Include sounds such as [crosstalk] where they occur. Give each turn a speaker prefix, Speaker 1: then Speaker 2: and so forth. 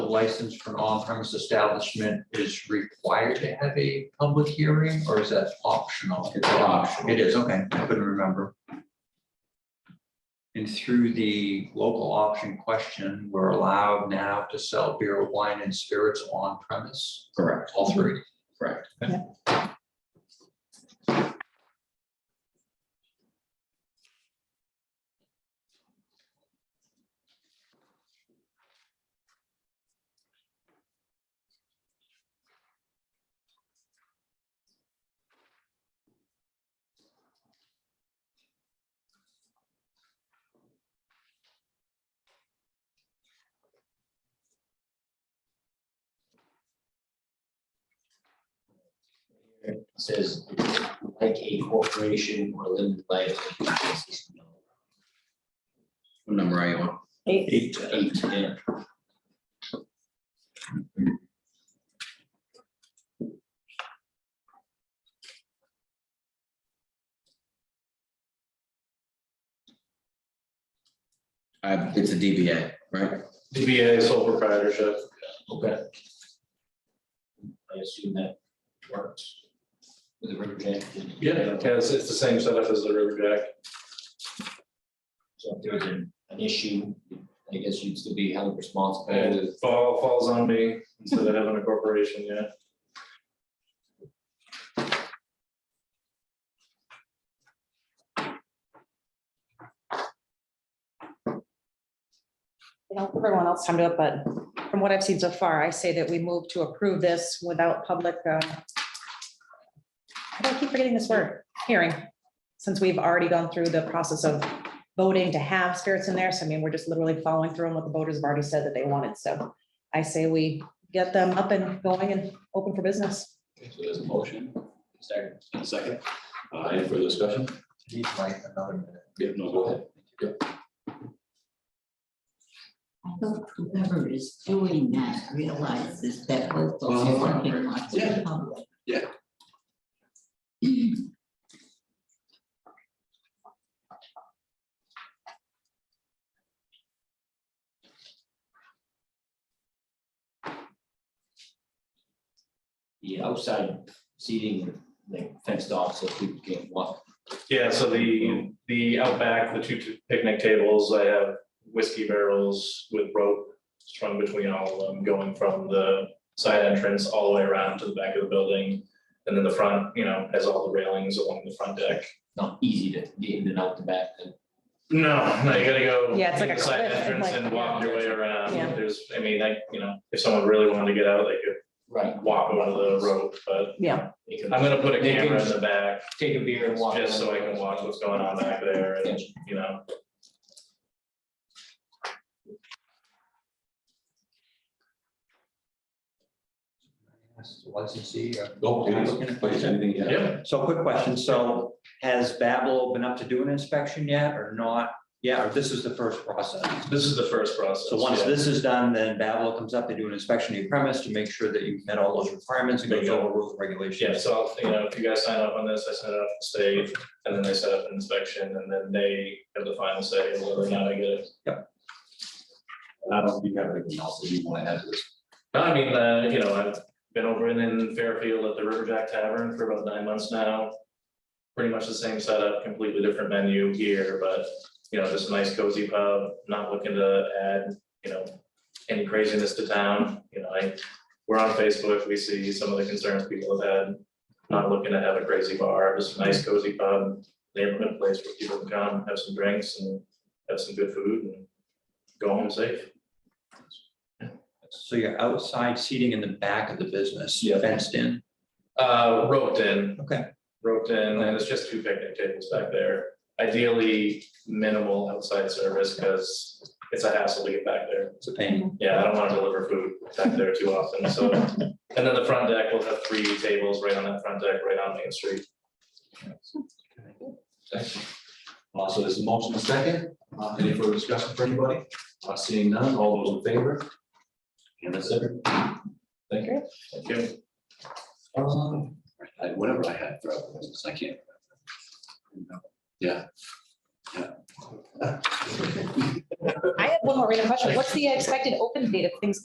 Speaker 1: license for an on-premise establishment is required to have a public hearing, or is that optional?
Speaker 2: It's optional.
Speaker 1: It is, okay, I couldn't remember. And through the local option question, we're allowed now to sell beer, wine, and spirits on premise,
Speaker 2: Correct,
Speaker 1: all three.
Speaker 2: correct.
Speaker 3: It Says like a corporation or limited liability. business."
Speaker 2: What number are you on?
Speaker 4: Eight,
Speaker 3: Eight, yeah.
Speaker 2: Uh, it's a DBA, right?
Speaker 5: DBA sole proprietorship.
Speaker 3: Okay. I assume that works with the river jack.
Speaker 5: It's, it's the same setup as the River Jack.
Speaker 3: So if there's an, an issue, I guess you'd still be held responsible.
Speaker 5: And it fall, falls on me instead of having a corporation, yeah.
Speaker 4: you know, everyone else time to it, but from what I've seen so far, I say that we move to approve this without public, uh, I don't keep forgetting this word, hearing, since we've already gone through the process of voting to have spirits in there. So I mean, we're just literally following through on what the voters have already said that they wanted. So I say we get them up and going and open for business.
Speaker 6: So there's a motion
Speaker 3: Second.
Speaker 6: and a second. Uh, Any further discussion?
Speaker 1: Need like another minute.
Speaker 6: Yeah, no, go ahead.
Speaker 7: I hope whoever is doing that realizes that we're
Speaker 2: Well,
Speaker 7: working on the public.
Speaker 3: The outside seating, like fenced off, so people can't walk.
Speaker 5: Yeah, so the, the outback, the two t- picnic tables, I have whiskey barrels with rope strung between all of them, going from the side entrance all the way around to the back of the building. And then the front, you know, has all the railings along the front deck.
Speaker 3: Not easy to get in and out the back, then
Speaker 5: No, no, you gotta go.
Speaker 4: Yeah, it's like a
Speaker 5: to the Side
Speaker 4: cliff and
Speaker 5: entrance
Speaker 4: like-
Speaker 5: and walk your way around.
Speaker 4: Yeah.
Speaker 5: There's, I mean, like, you know, if someone really wanted to get out, they could
Speaker 3: right.
Speaker 5: walk over the rope, but
Speaker 3: they can
Speaker 5: I'm gonna put a
Speaker 3: They can
Speaker 5: camera in
Speaker 3: just
Speaker 5: the back,
Speaker 3: Take a beer and walk.
Speaker 5: just so I can watch what's going on back there and,
Speaker 3: Gotcha.
Speaker 5: you know.
Speaker 1: Ask the Licensee, uh, go ahead,
Speaker 6: Please,
Speaker 1: please.
Speaker 6: anything, yeah.
Speaker 5: Yep.
Speaker 1: So quick question, so has Babel been up to do an inspection yet or not? Yeah, or this is the first process?
Speaker 5: This is the first process.
Speaker 1: So once
Speaker 5: yeah.
Speaker 1: this is done, then Babel comes up, they do an inspection of your premise to make sure that you've met all those requirements and goes
Speaker 5: Bingo.
Speaker 1: over rules and regulations.
Speaker 5: Yeah, so, I'll- you know, if you guys sign up on this, I send it off to the state, and then they set up an inspection, and then they have the final say of whether or not I get it.
Speaker 6: And I don't think you have anything else that you want to add to this.
Speaker 5: No, I mean, uh, you know, I've been over in- in Fairfield at the River Jack Tavern for about nine months now. Pretty much the same setup, completely different menu here, but, you know, just a nice cozy pub, not looking to add, you know, any craziness to town, you know, I, we're on Facebook, we see some of the concerns people have had. Not looking to have a crazy bar, just a nice cozy pub, neighborhood place where people can come, have some drinks and have some good food and go home safe.
Speaker 1: So you're outside seating in the back of the business,
Speaker 5: Yeah.
Speaker 1: fenced in.
Speaker 5: Uh, roped in.
Speaker 1: Okay.
Speaker 5: Roped in, and it's just two picnic tables back there. Ideally, minimal outside service, because it's a hassle to get back there.
Speaker 1: It's a pain.
Speaker 5: Yeah, I don't want to deliver food back there too often, so. And then the front deck, will have three tables right on that front deck, right on Main Street.
Speaker 6: Uh, so there's a motion and a second. Uh, Any further discussion for anybody? Uh, Seeing none, all those in favor? And that's it. Thank you.
Speaker 5: Thank you.
Speaker 6: Um, I- Whatever I had for other business, I can't. remember. Yeah. Yeah. [laughs]
Speaker 4: I have one more random question. What's the expected open date if things